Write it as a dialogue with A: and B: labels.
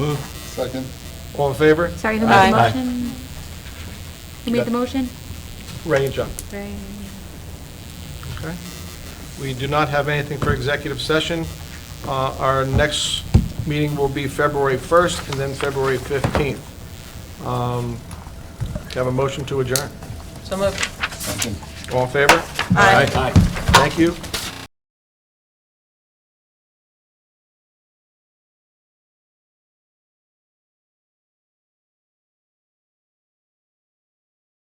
A: Second.
B: All in favor?
C: Sorry, who made the
D: Aye.
C: motion? Who made the motion?
B: Ray and John.
C: Ray.
B: Okay. We do not have anything for executive session. Uh, Our next meeting will be February 1st and then February 15th. Um, Have a motion to adjourn.
D: So moved.
A: Second.
B: All in favor?
D: Aye.
B: Thank you.